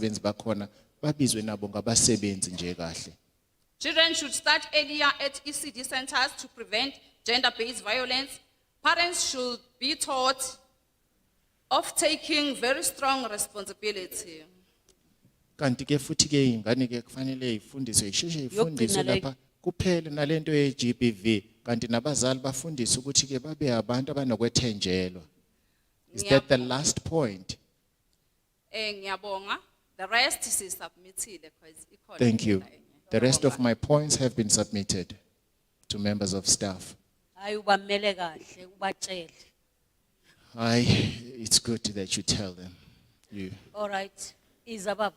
abasebenzi bakhona babizwe nabo ngabasebenzi nje kahle Children should start earlier at ECD centers to prevent gender-based violence. Parents should be taught of taking very strong responsibility. kanti ke futhi ke ingane ke kufanele ifundiswe isheshe ifundiswe Yokugcina le- lapha kuphele nalento ye-GBV kanti nabazali bafundiswe ukuthi ke babe abantu abanokwethenjelwa is that the last point Eh, ngiyabonga. The rest is submitted. thank you the rest of my points have been submitted to members of staff hayi ubamele kahle ubatshele I, it's good that you tell them. You, all right izababa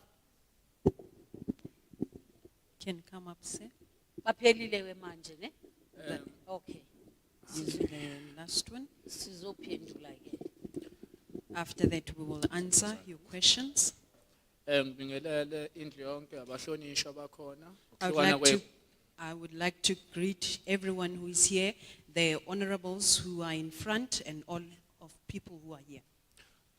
can come up sir baphelile we manje ne okay is the last one. sizophendula ke After that, we will answer your questions. Eh ngibingelele indlu yonke abahlonishwa bakhona. I would ukuhlukana like to, kwe- I would like to greet everyone who is here, the honorables who are in front and all of people who are here.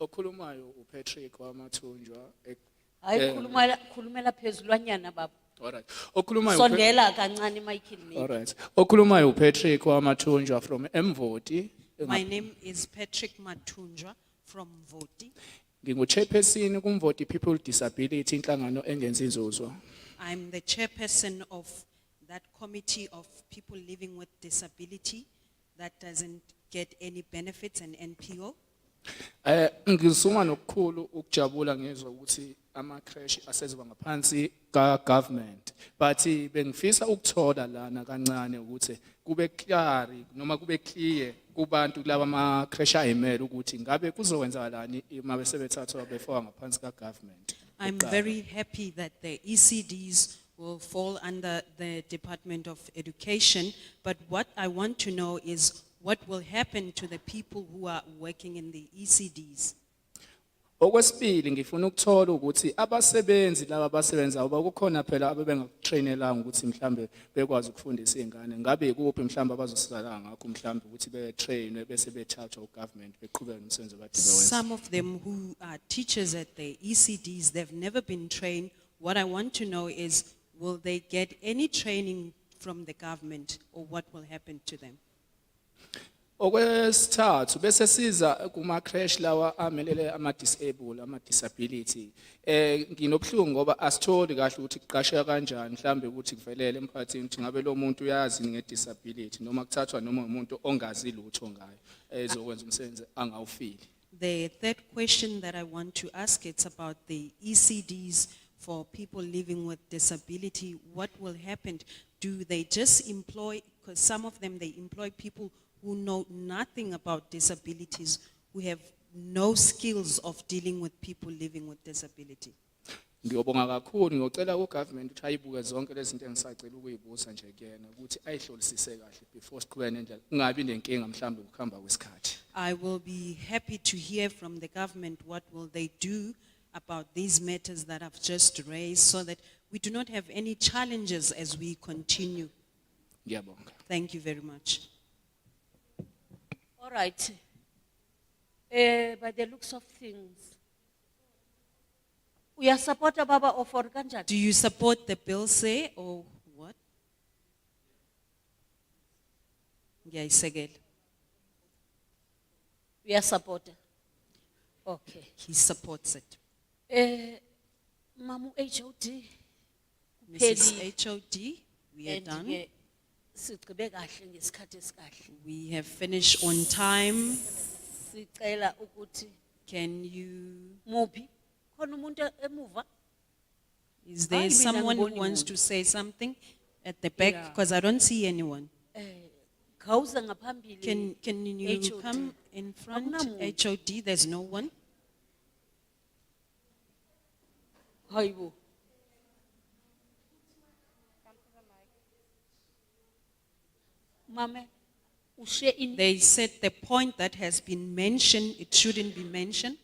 Okhulumayo uPatrick wamathunjwa. eh, hayi Eh. khulumela khulumela phezulwanyana baba Alright. Okhulumayo uPa- sondela kancane Michael Alright. Okhulumayo uPatrick wamathunjwa from Mvoti. My name is Patrick Matunjwa from Voti. Ngingu chairperson kuMvoti People with Disability inhlangano engenzi inzuzo. I'm the chairperson of that committee of people living with disability that doesn't get any benefits and NPO. Eh ngizuma nokukhulu ukujabula ngizwa ukuthi ama crash aseziba ngaphansi ka government but bengifisa ukuthola lana kancane ukuthi kube clear noma kube clear kubantu laba ama crash ayimele ukuthi ngabe kuzowenzakalani uma besebethathwa before ngaphansi ka government I'm very happy that the ECDs will fall under the Department of Education, but what I want to know is what will happen to the people who are working in the E ECDs? Okwesibili ngifuna ukuthola ukuthi abasebenzi laba abasebenza uba kukhona phela abebengakutrainelanga ukuthi mhlambe bekwazi ukufundisa izingane ngabe ikuphi mhlambe abazosizakala ngakho mhlambe ukuthi betrainwe bese bethathwa ugovernment beqhubeka nomsebenzi abadibewenza Some of them who are teachers at the ECDs, they've never been trained. What I want to know is, will they get any training from the government or what will happen to them? Okwesithathu bese siza kuma crash lawa amelele ama disabled ama disability eh nginobhlungu ngoba asitholi kahle ukuthi kuqashwe kanjani mhlambe ukuthi kuvelele emphakathini ukuthi ngabe lo muntu uyazi nge disability noma kuthathwa noma umuntu ongazi lutho ngayo eh, ezokwenza umsebenzi angawufili The third question that I want to ask, it's about the ECDs for people living with disability. What will happen? Do they just employ, because some of them, they employ people who know nothing about disabilities, who have no skills of dealing with people living with disability. Ngiyobonga kakhulu ngiyocela ku government ukuthi ayibuke zonke lezi zinto engisacela ukuyibusa nje kuyena ukuthi ayihlolisise kahle before siqhubeke nendlela kungabi nenkinga mhlambe ukuhamba kwesikhathi I will be happy to hear from the government what will they do about these matters that I've just raised so that we do not have any challenges as we continue. ngiyabonga Thank you very much. all right eh by the looks of things uyasupporta baba offer kanjani Do you support the bill say or what? Ngiyayisekela. uyasupporta okay He supports it. Eh, mamu HOD. Mrs. HOD, we are done. And sigqibe kahle ngesikhathi esikahle. We have finished on time. Sicela ukuthi Can you, muphi? Khona umuntu emuva? is there Hayi, mina someone who angiboni wants muntu. to say something at the back? Yeah. Because I don't see anyone. Khawuza ngaphambili. e-H Can, can you HOD. come in front? Akunamuntu. HOD, there's no one. Hayibo. Mame, ushe in They said the point that has been mentioned, it shouldn't be mentioned.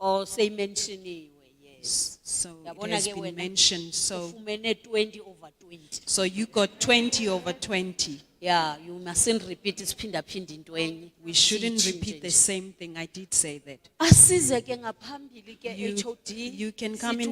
Oh, or say mentioniwe, yes. So it Yabona has ke been wena, mentioned, so, Ufumene 20 over 20. so you got twenty over twenty. Yeah, you mustn't repeat isiphindaphindi into enye. We shouldn't Siyitshintshe repeat the nje. same thing, I did say that. Asize ke ngaphambili ke You- HOD. you can come in sithi